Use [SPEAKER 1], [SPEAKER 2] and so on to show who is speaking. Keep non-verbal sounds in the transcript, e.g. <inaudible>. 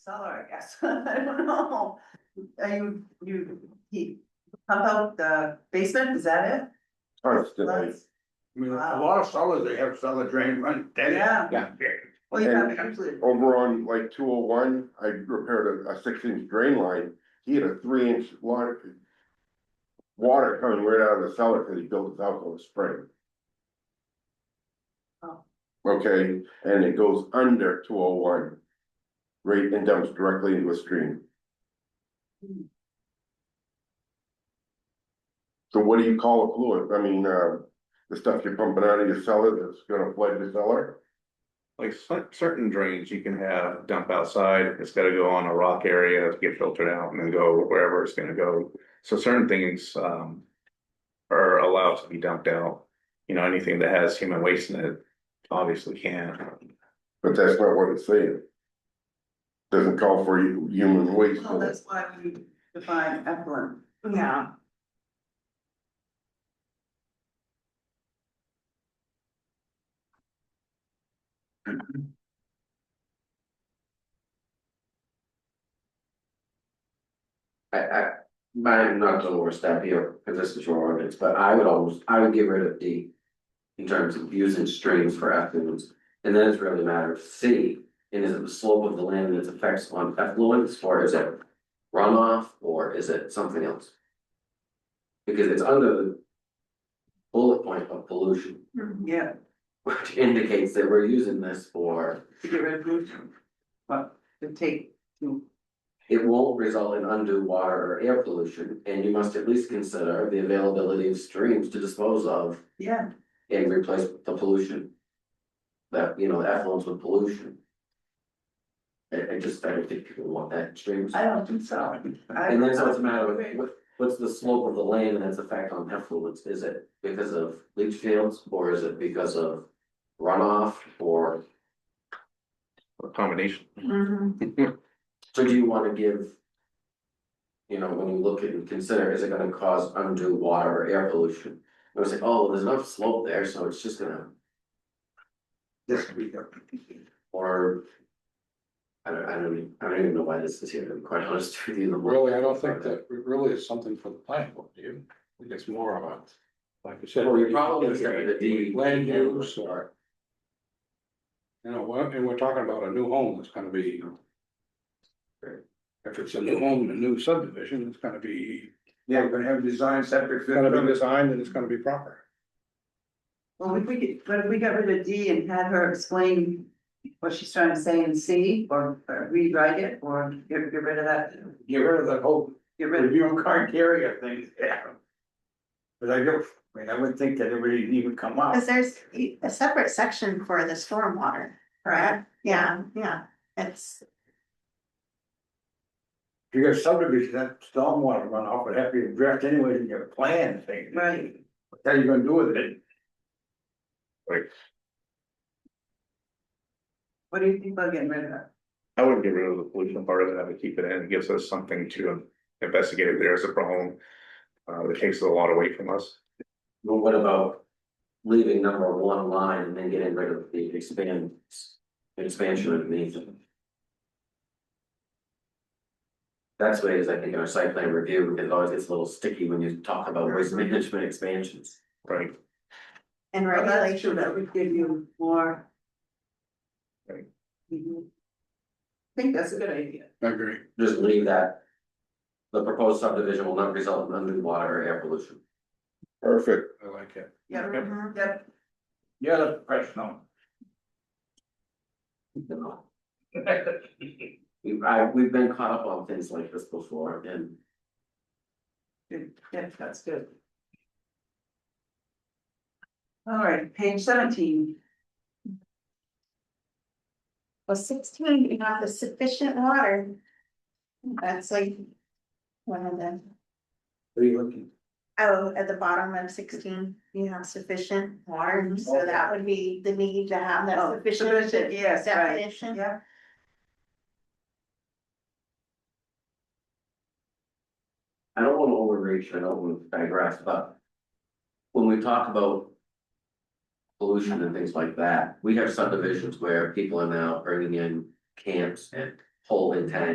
[SPEAKER 1] seller, I guess, <laughs> I don't know. Are you, you, he, pump out the basement, is that it?
[SPEAKER 2] Constantly.
[SPEAKER 1] That's-
[SPEAKER 3] I mean, a
[SPEAKER 1] Wow.
[SPEAKER 3] lot of cellars, they have cellar drain run dead.
[SPEAKER 1] Yeah, well, you
[SPEAKER 2] And-
[SPEAKER 1] have usually,
[SPEAKER 2] Over on like two oh one, I repaired a, a six inch drain line, he had a three inch water. Water coming right out of the cellar, cause he built his house on a spring.
[SPEAKER 1] Oh.
[SPEAKER 2] Okay, and it goes under two oh one. Right, and dumps directly into a stream.
[SPEAKER 1] Hmm.
[SPEAKER 2] So what do you call a fluid, I mean, uh, the stuff you're pumping out of your cellar that's gonna flood the cellar?
[SPEAKER 4] Like cer- certain drains you can have dump outside, it's gotta go on a rock area to get filtered out and then go wherever it's gonna go. So certain things um. Are allowed to be dumped out, you know, anything that has human waste in it, obviously can't.
[SPEAKER 2] But that's not what it's saying. Doesn't call for hu- human waste.
[SPEAKER 1] well, that's why we define effluent.
[SPEAKER 5] Yeah.
[SPEAKER 6] I, I, I'm not gonna overstep here, because this is your ordinance, but I would almost, I would get rid of D. In terms of using streams for effluents, and then it's really a matter of C, and is it the slope of the land and its effects on effluents, or is it runoff, or is it something else? Because it's under the bullet point of pollution, <laughs>
[SPEAKER 1] Yeah,
[SPEAKER 6] which indicates that we're using this for,
[SPEAKER 1] to get rid of pollution. But to take, to,
[SPEAKER 6] it won't result in undue water or air pollution, and you must at least consider the availability of streams to dispose of.
[SPEAKER 1] yeah,
[SPEAKER 6] and replace the pollution. That, you know, the effluents with pollution. I, I just, I don't think people want that streams.
[SPEAKER 1] I don't think so. I-
[SPEAKER 6] And then so it's a matter of, what, what's the slope of the land and its effect on effluents, is it because of leach fields, or is it because of runoff, or?
[SPEAKER 4] A combination,
[SPEAKER 1] Mhm.
[SPEAKER 6] So do you wanna give? You know, when you look at and consider, is it gonna cause undue water or air pollution? It was like, oh, there's enough slope there, so it's just gonna,
[SPEAKER 3] This week.
[SPEAKER 6] or. I don't, I don't, even- I don't even know why this is here, to be quite honest with you. the more-
[SPEAKER 7] Really, I don't think that it really is something for the planning board, do you? I think it's more of a, like you said.
[SPEAKER 6] Well, you're probably looking at the-
[SPEAKER 7] Land use or. You know, we're- and we're talking about a new home that's gonna be. If it's a new home, and a new subdivision, it's gonna be,
[SPEAKER 3] Yeah, we're gonna have design separate.
[SPEAKER 7] it's gonna be designed and it's gonna be proper.
[SPEAKER 1] Well, if we could, but if we got rid of D and had her explain what she's trying to say in C, or or rewrite it, or get, get rid of that,
[SPEAKER 3] Get rid of that whole
[SPEAKER 1] get rid of.
[SPEAKER 3] review criteria thing, yeah. But I don't, I mean, I wouldn't think that it would even come up.
[SPEAKER 5] Cause there's e- a separate section for the stormwater, correct? Yeah, yeah, it's,
[SPEAKER 3] You got subdivision, that stormwater runoff would have to be addressed anyway in your plan thing.
[SPEAKER 1] Right.
[SPEAKER 3] What are you gonna do with it?
[SPEAKER 1] What do you think about getting rid of that?
[SPEAKER 4] I wouldn't get rid of the pollution part of it, I would keep it in, it gives us something to investigate if there's a problem. Uh, that takes a lot away from us.
[SPEAKER 6] But what about leaving number one line and then getting rid of the expand, expansion of anything? That's what it is, I think, in our site plan review, it always gets a little sticky when you talk about waste management expansions.
[SPEAKER 4] Right,
[SPEAKER 5] and
[SPEAKER 1] Well, that's true,
[SPEAKER 5] regulation,
[SPEAKER 1] that would give you more.
[SPEAKER 4] Right.
[SPEAKER 1] Mhm. I think that's a good idea.
[SPEAKER 7] I agree.
[SPEAKER 6] Just leave that. The proposed subdivision will not result in undue water or air pollution.
[SPEAKER 2] Perfect.
[SPEAKER 7] I like it.
[SPEAKER 1] Yep,
[SPEAKER 5] Mhm.
[SPEAKER 1] yep,
[SPEAKER 3] You're the <laughs> professional.
[SPEAKER 6] We've, I, we've been caught up on things like this before and
[SPEAKER 1] good, yep, that's good. All right, page seventeen,
[SPEAKER 5] well, sixteen, you have the sufficient water. That's like. One of them,
[SPEAKER 3] What are you looking?
[SPEAKER 5] oh, at the bottom of sixteen, you have sufficient water, so that would be the need to have
[SPEAKER 1] Mhm. Oh,
[SPEAKER 5] that sufficient
[SPEAKER 1] sufficient, yes, right.
[SPEAKER 5] definition.
[SPEAKER 1] yeah.
[SPEAKER 6] I don't wanna overreach, I don't wanna digress, but. When we talk about. Pollution and things like that, we have subdivisions where people are now bringing in camps and whole intent